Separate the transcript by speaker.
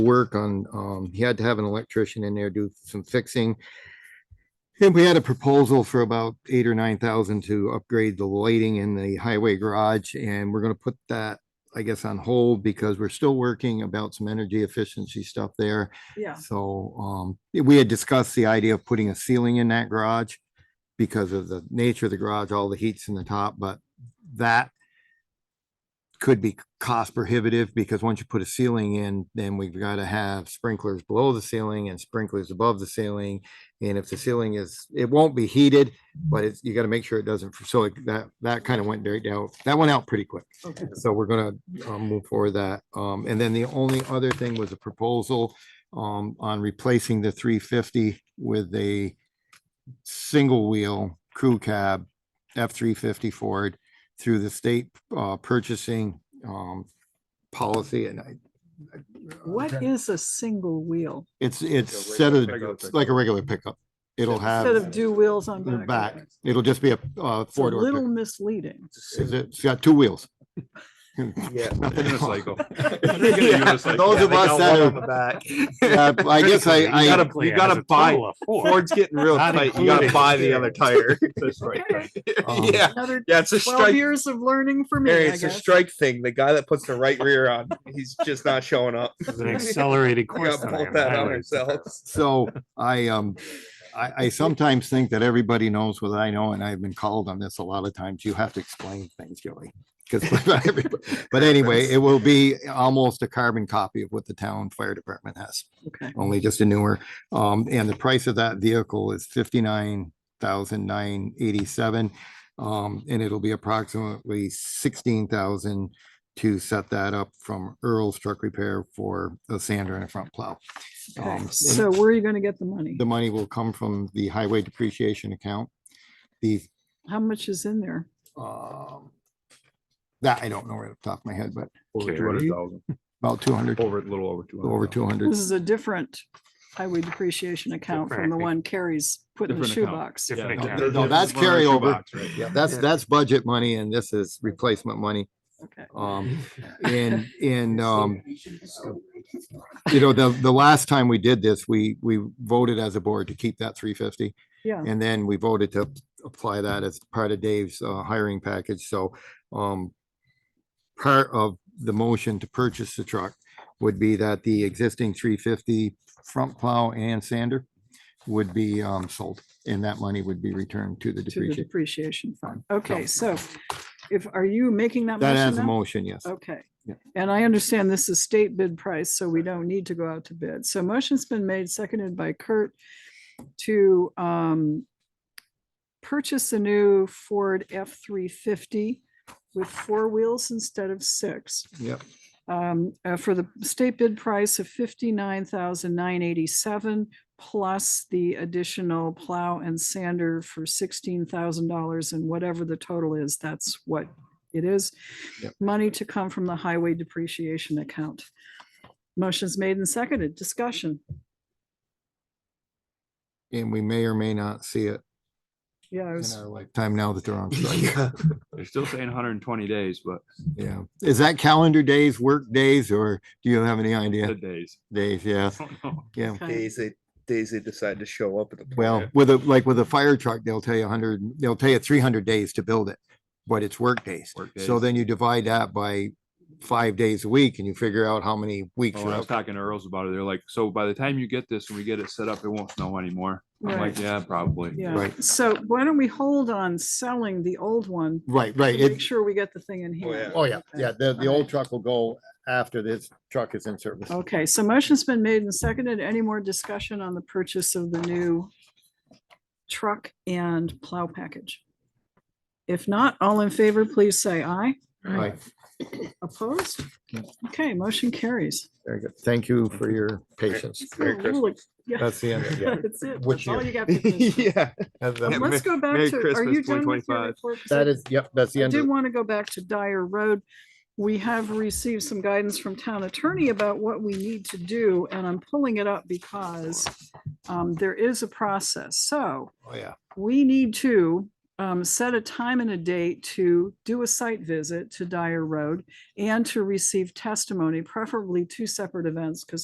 Speaker 1: work on, um, he had to have an electrician in there do some fixing. And we had a proposal for about eight or nine thousand to upgrade the lighting in the highway garage, and we're gonna put that, I guess, on hold because we're still working about some energy efficiency stuff there.
Speaker 2: Yeah,
Speaker 1: So, um, we had discussed the idea of putting a ceiling in that garage because of the nature of the garage, all the heat's in the top, but that could be cost prohibitive because once you put a ceiling in, then we've got to have sprinklers below the ceiling and sprinklers above the ceiling. And if the ceiling is, it won't be heated, but it's, you got to make sure it doesn't, so it- that, that kind of went right out, that went out pretty quick.
Speaker 2: okay,
Speaker 1: So we're gonna um move forward that. Um, and then the only other thing was a proposal um on replacing the three fifty with a single wheel crew cab F three fifty Ford through the state uh purchasing um policy and I
Speaker 2: what is a single wheel?
Speaker 1: it's
Speaker 3: Like a
Speaker 1: it's set
Speaker 3: regular
Speaker 1: of,
Speaker 3: pickup.
Speaker 1: it's like a regular pickup. It'll
Speaker 2: Instead
Speaker 1: have,
Speaker 2: of two wheels on
Speaker 1: the back,
Speaker 2: back.
Speaker 1: it'll just be a uh
Speaker 2: It's a
Speaker 1: four
Speaker 2: little
Speaker 1: door.
Speaker 2: misleading.
Speaker 1: It's got two wheels.
Speaker 3: Yeah.
Speaker 1: Nothing else.
Speaker 3: Unicycle.
Speaker 1: Yeah,
Speaker 3: Unicycle.
Speaker 1: Those
Speaker 3: Yeah,
Speaker 1: of
Speaker 3: they
Speaker 1: us
Speaker 3: got
Speaker 1: that
Speaker 3: one
Speaker 1: are
Speaker 3: on the back.
Speaker 1: Yeah, I guess I,
Speaker 3: You
Speaker 1: I,
Speaker 3: gotta, you gotta buy, Ford's getting real
Speaker 4: Not
Speaker 3: tight, you gotta
Speaker 4: included.
Speaker 3: buy the other tire. That's right.
Speaker 1: um,
Speaker 3: Yeah,
Speaker 2: Another
Speaker 3: yeah, it's a
Speaker 2: twelve
Speaker 3: strike,
Speaker 2: years of learning for me,
Speaker 3: Mary,
Speaker 2: I
Speaker 3: it's a
Speaker 2: guess.
Speaker 3: strike thing, the guy that puts the right rear on, he's just not showing up.
Speaker 4: This is an accelerated
Speaker 3: We
Speaker 4: course.
Speaker 3: gotta
Speaker 4: tonight
Speaker 3: pull
Speaker 4: on
Speaker 3: that out
Speaker 4: highways.
Speaker 3: ourselves.
Speaker 1: so I, um, I, I sometimes think that everybody knows what I know, and I've been called on this a lot of times. You have to explain things, Joey. 'cause- but anyway, it will be almost a carbon copy of what the town fire department has,
Speaker 2: Okay,
Speaker 1: only just a newer. Um, and the price of that vehicle is fifty-nine thousand nine eighty-seven. Um, and it'll be approximately sixteen thousand to set that up from Earl's Truck Repair for a sander and a front plow.
Speaker 2: okay.
Speaker 1: Um, and-
Speaker 2: So where are you gonna get the money?
Speaker 1: the money will come from the highway depreciation account. The,
Speaker 2: How much is in there?
Speaker 1: um, that I don't know right off the top of my head, but
Speaker 5: Over two hundred thousand,
Speaker 1: about two hundred,
Speaker 5: over, a little over two hundred.
Speaker 1: over two hundred.
Speaker 2: This is a different highway depreciation account from the
Speaker 4: Different.
Speaker 2: one Carrie's put in the
Speaker 5: Different account.
Speaker 2: shoebox.
Speaker 4: Different
Speaker 1: no,
Speaker 4: account.
Speaker 1: there- no, that's carryover.
Speaker 5: Yeah.
Speaker 1: That's, that's budget money and this is replacement money.
Speaker 2: Okay.
Speaker 1: Um, and, and, um, you know, the, the last time we did this, we, we voted as a board to keep that three fifty.
Speaker 2: Yeah,
Speaker 1: And then we voted to apply that as part of Dave's uh, hiring package, so, um, part of the motion to purchase the truck would be that the existing three fifty front plow and sander would be, um, sold, and that money would be returned to the
Speaker 2: to the
Speaker 1: depreciation.
Speaker 2: depreciation fund. Okay, so if, are you making that
Speaker 1: That
Speaker 2: motion
Speaker 1: as a
Speaker 2: now?
Speaker 1: motion, yes.
Speaker 2: Okay,
Speaker 1: Yeah.
Speaker 2: and I understand this is state bid price, so we don't need to go out to bid. So motion's been made, seconded by Kurt to um purchase a new Ford F three fifty with four wheels instead of six.
Speaker 1: Yep.
Speaker 2: Um, uh, for the state bid price of fifty-nine thousand nine eighty-seven plus the additional plow and sander for sixteen thousand dollars and whatever the total is, that's what it is.
Speaker 1: Yep.
Speaker 2: Money to come from the highway depreciation account. Motion's made and seconded. Discussion.
Speaker 1: And we may or may not see it
Speaker 2: Yeah, I
Speaker 1: in
Speaker 2: was-
Speaker 1: our lifetime now that they're on strike.
Speaker 5: They're still saying hundred and twenty days, but
Speaker 1: Yeah. Is that calendar days, work days, or do you have any idea?
Speaker 5: good days.
Speaker 1: Days, yeah,
Speaker 5: I don't know.
Speaker 1: yeah.
Speaker 2: okay.
Speaker 3: Days they, days they decide to show up at the.
Speaker 1: Well, with a, like with a fire truck, they'll tell you hundred, they'll tell you three hundred days to build it, but it's work days.
Speaker 5: Work
Speaker 1: So
Speaker 5: days.
Speaker 1: then you divide that by five days a week and you figure out how many weeks
Speaker 5: Oh,
Speaker 1: you're
Speaker 5: When I was
Speaker 1: out.
Speaker 5: talking to Earls about it, they're like, so by the time you get this and we get it set up, it won't snow anymore. I'm
Speaker 2: Right.
Speaker 5: like, yeah, probably.
Speaker 2: Yeah,
Speaker 1: Right.
Speaker 2: so why don't we hold on selling the old one?
Speaker 1: Right,
Speaker 2: to
Speaker 1: right.
Speaker 2: Make
Speaker 1: It,
Speaker 2: sure we get the thing in
Speaker 3: Oh,
Speaker 2: here.
Speaker 3: yeah.
Speaker 1: oh yeah,
Speaker 2: Okay.
Speaker 1: yeah. The, the
Speaker 2: All
Speaker 1: old
Speaker 2: right.
Speaker 1: truck will go after this truck is in service.
Speaker 2: Okay, so motion's been made and seconded. Any more discussion on the purchase of the new truck and plow package? If not, all in favor, please say aye.
Speaker 1: Right,
Speaker 2: Opposed? Okay, motion carries.
Speaker 1: very good. Thank you for your patience.
Speaker 3: Merry
Speaker 2: Oh, really? Yeah.
Speaker 1: That's the end. of it.
Speaker 2: That's it.
Speaker 1: Which
Speaker 2: That's all
Speaker 1: year?
Speaker 2: you got for this one.
Speaker 3: Yeah.
Speaker 1: That's the-
Speaker 3: Yeah,
Speaker 2: Let's go back
Speaker 5: Merry
Speaker 2: to, are
Speaker 5: Christmas,
Speaker 2: you done with your
Speaker 5: 2025.
Speaker 2: report? 'Cause I-
Speaker 1: That is, yep, that's the
Speaker 2: I
Speaker 1: end. of
Speaker 2: did
Speaker 1: it.
Speaker 2: want to go back to Dyer Road. We have received some guidance from town attorney about what we need to do, and I'm pulling it up because um, there is a process. So
Speaker 1: Oh, yeah.
Speaker 2: we need to um, set a time and a date to do a site visit to Dyer Road and to receive testimony, preferably two separate events, because